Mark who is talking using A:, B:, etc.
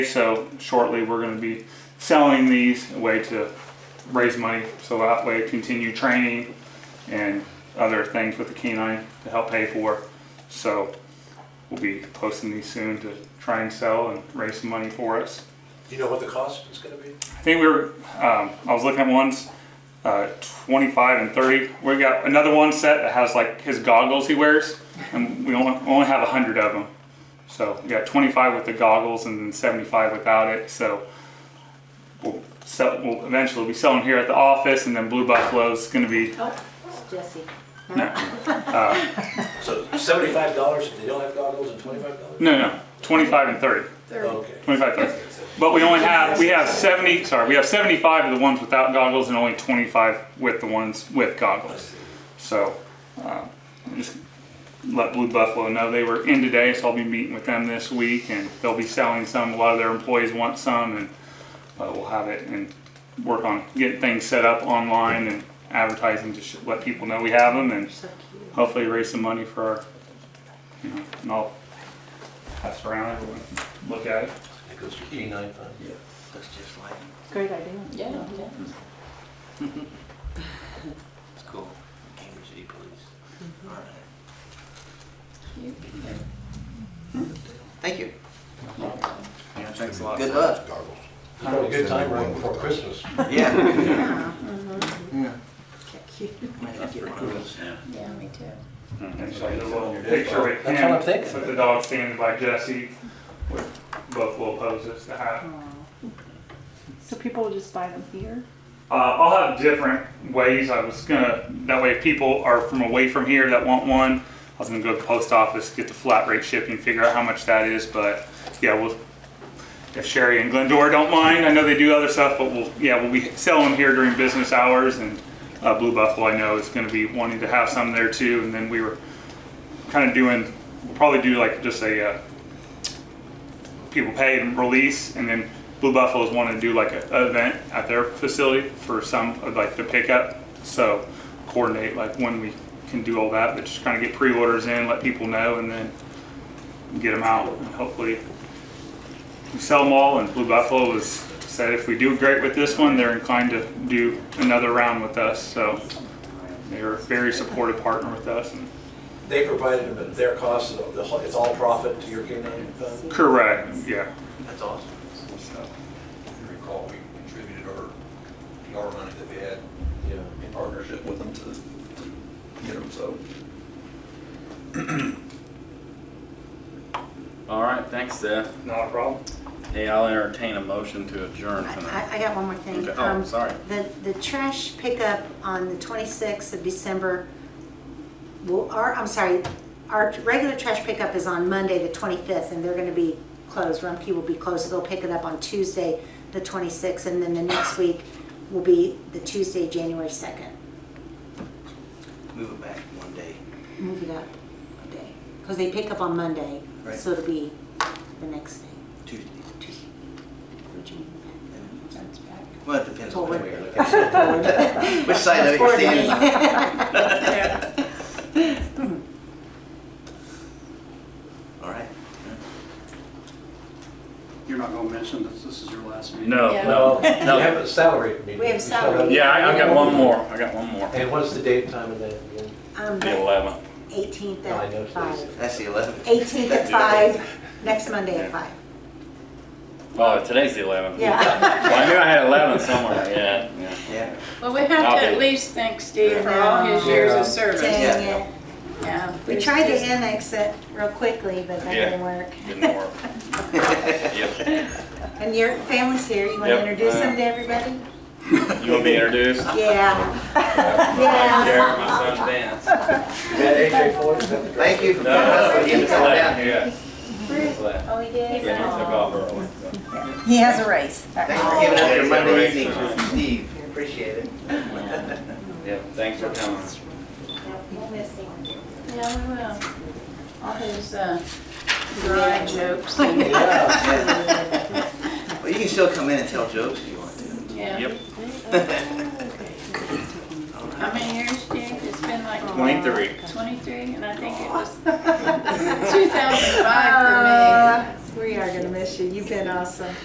A: So shortly, we're going to be selling these, a way to raise money, so that way continue training and other things with the canine to help pay for. So we'll be posting these soon to try and sell and raise some money for us.
B: Do you know what the cost is gonna be?
A: I think we were, um, I was looking at ones, uh, 25 and 30. We got another one set that has like his goggles he wears, and we only, only have 100 of them. So we got 25 with the goggles and then 75 without it. So we'll, sell, we'll eventually be selling here at the office, and then Blue Buffalo's going to be.
C: Oh, Jesse.
A: No,
B: So seventy-five dollars if they don't have goggles and twenty-five dollars?
A: no, no. 25 and 30.
B: Okay.
A: 25, 30. But we only have, we have 70, sorry, we have 75 of the ones without goggles and only 25 with the ones with goggles. So, um, just let Blue Buffalo know they were in today, so I'll be meeting with them this week and they'll be selling some. A lot of their employees want some and uh, we'll have it and work on getting things set up online and advertising to sh- let people know we have them and
C: So cute.
A: hopefully raise some money for our, you know, and I'll pass around everyone, look at it.
D: It goes to eighty-nine fund? Yeah. That's just like,
C: Great idea.
E: Yeah, yeah.
D: it's cool, Cambridge City Police. All right. Thank you.
F: Yeah, thanks a lot.
D: Good luck.
B: You have a good time right before Christmas.
D: Yeah.
F: Yeah.
C: Cute.
D: Might have to get one of those.
E: Yeah, me too.
A: And so the little picture with
B: That's what
A: him,
B: I'm thinking.
A: with the dog standing by Jesse, with Buffalo poses to have.
C: So people will just buy them here?
A: Uh, I'll have different ways. I was gonna, that way if people are from away from here that want one, I was gonna go to the post office, get the flat rate shipping, figure out how much that is, but yeah, we'll, if Sherry and Glendora don't mind, I know they do other stuff, but we'll, yeah, we'll be selling them here during business hours and uh, Blue Buffalo, I know is gonna be wanting to have some there too, and then we were kind of doing, we'll probably do like just a, uh, people pay and release, and then Blue Buffaloes want to do like a, an event at their facility for some of like the pickup. So coordinate like when we can do all that, but just kind of get pre-orders in, let people know, and then get them out, and hopefully we sell them all. And Blue Buffalo was said if we do great with this one, they're inclined to do another round with us. So they're a very supportive partner with us. And
B: They provided them at their cost, so the whole- it's all profit to your K-9 fund?
A: correct, yeah.
D: That's awesome.
A: So.
G: If you recall, we contributed our PR money that we had
B: Yeah.
G: in partnership with them to, to get them, so.
H: All right, thanks, Seth.
A: Not a problem.
H: Hey, I'll entertain a motion to adjourn
E: I,
H: tonight.
E: I got one more thing.
H: Okay. Oh,
E: Um,
H: sorry.
E: The, the trash pickup on the 26th of December, well, our, I'm sorry, our regular trash pickup is on Monday, the 25th, and they're gonna be closed. Rumpke will be closed, so they'll pick it up on Tuesday, the 26th, and then the next week will be the Tuesday, January 2nd.
D: Move it back one day.
E: Move it up a day, because they pick up on Monday,
D: Right.
E: so it'll be the next day.
D: Tuesday.
E: Tuesday. Would you move that? That's back.
D: Well, it depends on
E: Forward.
D: where you're looking at. Which side of it you're standing on. All right.
I: You're not gonna mention that this is your last meeting?
H: No,
E: Yeah.
B: No,
H: Oh, no,
B: you have
H: no.
B: a salary meeting.
E: We have
B: You still have-
E: salary.
H: Yeah, I, I got one more. I got one more.
B: And what's the date, time of that again?
E: Um,
H: The eleventh.
E: eighteenth
B: No, I know
E: at five.
B: today's-
D: That's the eleventh.
E: Eighteenth at five, next Monday at five.
H: Oh, today's the eleventh.
E: Yeah.
H: Well, I knew I had eleven somewhere. Yeah, yeah.
D: Yeah.
J: Well, we have
H: I'll
J: to
H: be-
J: at least thank Steve for all his years of service.
E: Dang it.
J: Yeah.
E: We tried to annex it real quickly, but that didn't work.
H: Didn't work. Yep.
E: And your family's here, you wanna
H: Yep.
E: introduce them to everybody?
H: You want to be introduced?
E: Yeah. Yeah.
H: Jared, my son Vance.
B: Is that AJ Floyd? Is that the director?
D: Thank you for coming
H: No,
D: up.
H: he was left. Yeah, he was left.
E: Oh, we did?
H: Yeah, he took off early. so.
E: He has a race.
D: Thanks for giving up your
H: Yeah,
D: Monday
H: right.
D: evenings with Steve. Appreciate it. Oh,
H: Yeah, thanks for coming.
E: We'll miss him.
J: Yeah, we will. All his uh, dry jokes and,
B: Yeah.
D: Well, you can still come in and tell jokes if you want to.
J: yeah.
H: Yep,
J: How many years, Steve? It's been like.
H: 23.
J: Twenty-three, and I think it was two thousand five for me.
E: Uh, We are gonna miss miss you. You've been awesome.